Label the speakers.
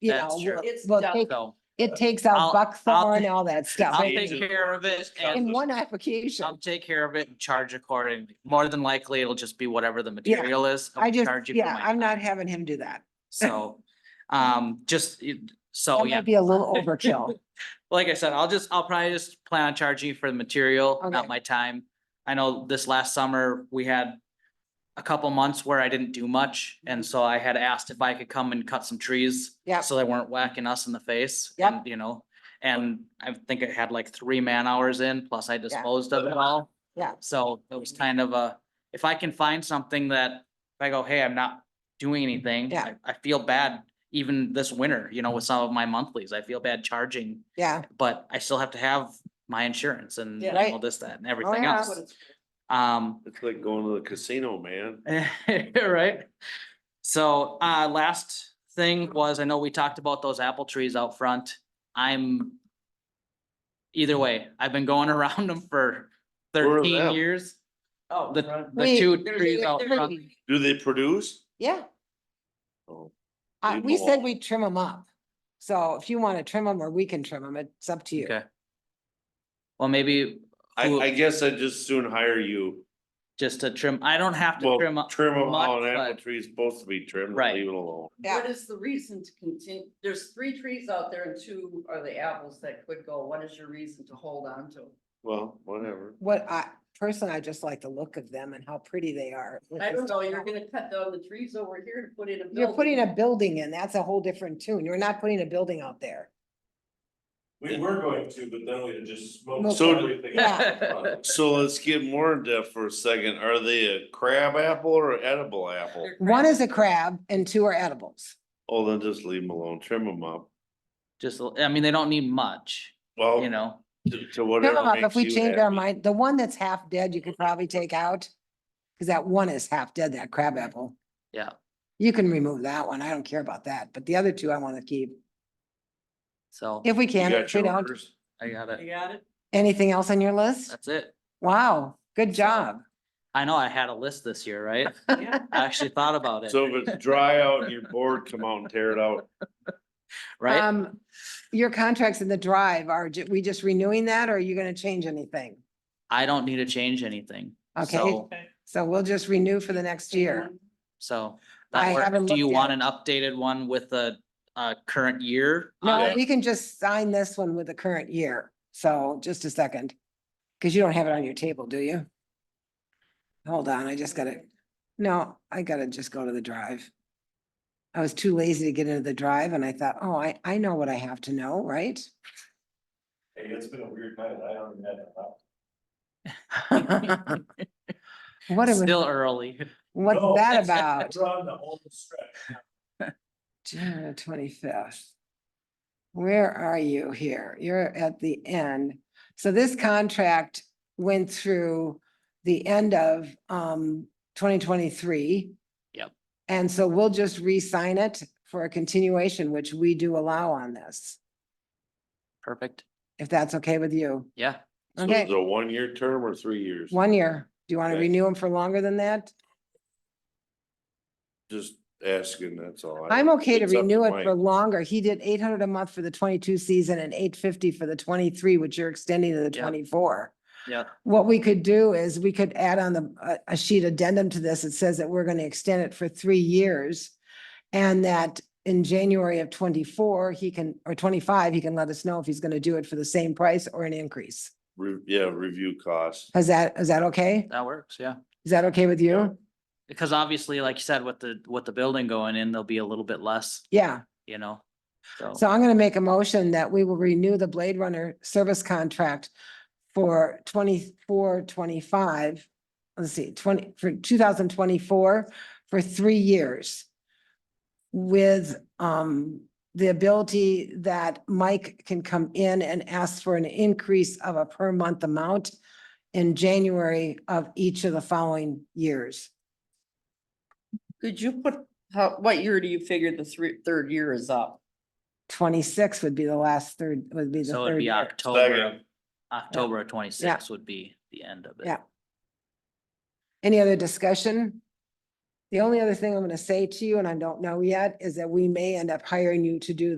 Speaker 1: you
Speaker 2: That's
Speaker 1: know,
Speaker 2: true.
Speaker 1: we'll-
Speaker 3: It's
Speaker 1: we'll
Speaker 3: done.
Speaker 1: take-
Speaker 2: So
Speaker 1: it takes
Speaker 2: I'll-
Speaker 1: out
Speaker 2: I'll-
Speaker 1: buckthorn, all that stuff.
Speaker 2: I'll
Speaker 1: It-
Speaker 2: take care of it
Speaker 1: In
Speaker 2: and
Speaker 1: one application.
Speaker 2: I'll take care of it and charge accordingly. More than likely, it'll just be whatever the
Speaker 1: Yeah.
Speaker 2: material is. I'll
Speaker 1: I just,
Speaker 2: charge you for
Speaker 1: yeah,
Speaker 2: my
Speaker 1: I'm not
Speaker 2: time.
Speaker 1: having him do that.
Speaker 2: So, um, just, you- so
Speaker 1: That
Speaker 2: Oh, yeah,
Speaker 1: might be a little overkill.
Speaker 2: like I said, I'll just, I'll probably just plan on charging you for the material,
Speaker 1: Okay.
Speaker 2: not my time. I know this last summer, we had a couple months where I didn't do much, and so I had asked if I could come and cut some trees.
Speaker 1: Mm-hmm. Yep.
Speaker 2: So they weren't whacking us in the face.
Speaker 1: Yep.
Speaker 2: and, You know, and I think I had like three man hours in, plus I disposed of it all.
Speaker 1: Yeah.
Speaker 2: So it was kind of a, if I can find something that, if I go, hey, I'm not doing anything.
Speaker 1: Yeah.
Speaker 2: I- I feel bad even this winter, you know, with some of my monthlies, I feel bad charging
Speaker 1: Yeah,
Speaker 2: but I still have to have my insurance and
Speaker 3: Yeah.
Speaker 1: Right. Oh,
Speaker 2: all this, that and everything
Speaker 1: yeah.
Speaker 3: That's what
Speaker 2: else.
Speaker 3: it's for.
Speaker 2: Um,
Speaker 4: It's like going to the casino, man.
Speaker 2: right? So, uh, last thing was, I know we talked about those apple trees out front. I'm either way, I've been going around them for
Speaker 4: Where are
Speaker 2: thirteen
Speaker 4: them?
Speaker 2: years.
Speaker 3: Oh,
Speaker 2: The,
Speaker 3: right.
Speaker 2: the
Speaker 1: Wait,
Speaker 2: two
Speaker 3: There's-
Speaker 2: trees out
Speaker 3: there's-
Speaker 2: front.
Speaker 4: Do they produce?
Speaker 1: yeah.
Speaker 4: Oh,
Speaker 1: Uh,
Speaker 4: Leave
Speaker 1: we
Speaker 4: 'em
Speaker 1: said
Speaker 4: alone.
Speaker 1: we'd trim them up. So if you want to trim them or we can trim them, it's up to you.
Speaker 2: Okay. Well, maybe
Speaker 4: I,
Speaker 2: Who-
Speaker 4: I guess I'd just soon hire you.
Speaker 2: just to trim, I don't have to
Speaker 4: Well,
Speaker 2: trim up.
Speaker 4: trim them
Speaker 2: much,
Speaker 4: how an apple
Speaker 2: but-
Speaker 4: tree is supposed to be trimmed,
Speaker 2: Right.
Speaker 4: and leave it alone.
Speaker 1: Yeah.
Speaker 3: What is the reason to continue? There's three trees out there and two are the apples that could go. What is your reason to hold on to?
Speaker 4: Well, whatever.
Speaker 1: What I, personally, I just like the look of them and how pretty they are. with
Speaker 3: I
Speaker 1: the
Speaker 3: don't know,
Speaker 1: stuff.
Speaker 3: you're gonna cut down the trees over here and put in a building.
Speaker 1: You're putting a building in, that's a whole different tune. You're not putting a building out there.
Speaker 5: We were going to, but then we just smoked
Speaker 4: So-
Speaker 5: everything.
Speaker 2: Yeah.
Speaker 4: So let's get more in depth for a second. Are they a crab apple or edible apple?
Speaker 1: One is a crab and two are edibles.
Speaker 4: Oh, then just leave them alone, trim them up.
Speaker 2: Just, a- I mean, they don't need much,
Speaker 4: Well,
Speaker 2: you know?
Speaker 4: to- to
Speaker 1: Trim 'em
Speaker 4: whatever
Speaker 1: up If
Speaker 4: makes
Speaker 1: we
Speaker 4: you
Speaker 1: change our
Speaker 4: happy.
Speaker 1: mind, the one that's half dead, you could probably take out. Cause that one is half dead, that crab apple.
Speaker 2: Yeah.
Speaker 1: You can remove that one. I don't care about that, but the other two I want to keep.
Speaker 2: So
Speaker 1: If we
Speaker 4: You
Speaker 1: can,
Speaker 4: got
Speaker 1: if we
Speaker 4: your
Speaker 1: don't.
Speaker 4: orders?
Speaker 2: I got it.
Speaker 3: You got it?
Speaker 1: Anything else on your list?
Speaker 2: That's it.
Speaker 1: Wow, good job.
Speaker 2: I know I had a list this year, right?
Speaker 3: Yeah.
Speaker 2: I actually thought about
Speaker 4: So
Speaker 2: it,
Speaker 4: if it's dry out and you're bored, come out and tear it out.
Speaker 2: right?
Speaker 1: Um, your contracts in the drive, are ju- we just renewing that or are you gonna change anything?
Speaker 2: I don't need to change anything.
Speaker 1: Okay.
Speaker 2: So-
Speaker 1: So we'll just renew for the next year.
Speaker 2: So.
Speaker 1: I
Speaker 2: that
Speaker 1: haven't
Speaker 2: works. Do you
Speaker 1: looked at
Speaker 2: want an updated one with the uh current year? on
Speaker 1: No,
Speaker 2: it?
Speaker 1: we can just sign this one with the current year. So just a second. Cause you don't have it on your table, do you? Hold on, I just gotta, no, I gotta just go to the drive. I was too lazy to get into the drive and I thought, oh, I, I know what I have to know, right?
Speaker 5: Hey, it's been a weird night. I haven't had a lot.
Speaker 1: What, am-
Speaker 2: Still early.
Speaker 1: what's
Speaker 5: No.
Speaker 1: that about?
Speaker 5: We're on the home stretch.
Speaker 1: June twenty-fifth. Where are you here? You're at the end. So this contract went through the end of um twenty twenty-three.
Speaker 2: Yep.
Speaker 1: And so we'll just re-sign it for a continuation, which we do allow on this,
Speaker 2: Perfect.
Speaker 1: if that's okay with you.
Speaker 2: Yeah,
Speaker 4: So
Speaker 1: Okay,
Speaker 4: it's a one-year term or three years?
Speaker 1: one year. Do you want to
Speaker 4: Okay.
Speaker 1: renew them for longer than that?
Speaker 4: Just asking, that's all. I-
Speaker 1: I'm okay to
Speaker 4: it's up
Speaker 1: renew it
Speaker 4: Mike.
Speaker 1: for longer. He did eight hundred a month for the twenty-two season and eight fifty for the twenty-three, which you're extending to the
Speaker 2: Yep.
Speaker 1: twenty-four.
Speaker 2: yeah.
Speaker 1: What we could do is we could add on the, a- a sheet addendum to this. It says that we're going to extend it for three years. And that in January of twenty-four, he can, or twenty-five, he can let us know if he's going to do it for the same price or an increase.
Speaker 4: Re- Yeah, review costs.
Speaker 1: Is that, is that okay?
Speaker 2: That works, yeah.
Speaker 1: Is that okay with you?
Speaker 2: Because obviously, like you said, with the with the building going in, there'll be a little bit less,
Speaker 1: Yeah.
Speaker 2: you know? So,
Speaker 1: So I'm going to make a motion that we will renew the Blade Runner service contract for twenty-four, twenty-five. Let's see, twenty, for two thousand twenty-four, for three years. With um, the ability that Mike can come in and ask for an increase of a per month amount in January of each of the following years.
Speaker 3: Could you put, how, what year do you figure the three, third year is up?
Speaker 1: Twenty-six would be the last third, would be the
Speaker 2: so it'd
Speaker 1: third
Speaker 2: be
Speaker 1: year.
Speaker 2: October,
Speaker 4: Second.
Speaker 2: October of twenty-six would be the end of it.
Speaker 1: Yeah. Any other discussion? The only other thing I'm gonna say to you, and I don't know yet, is that we may end up hiring you to do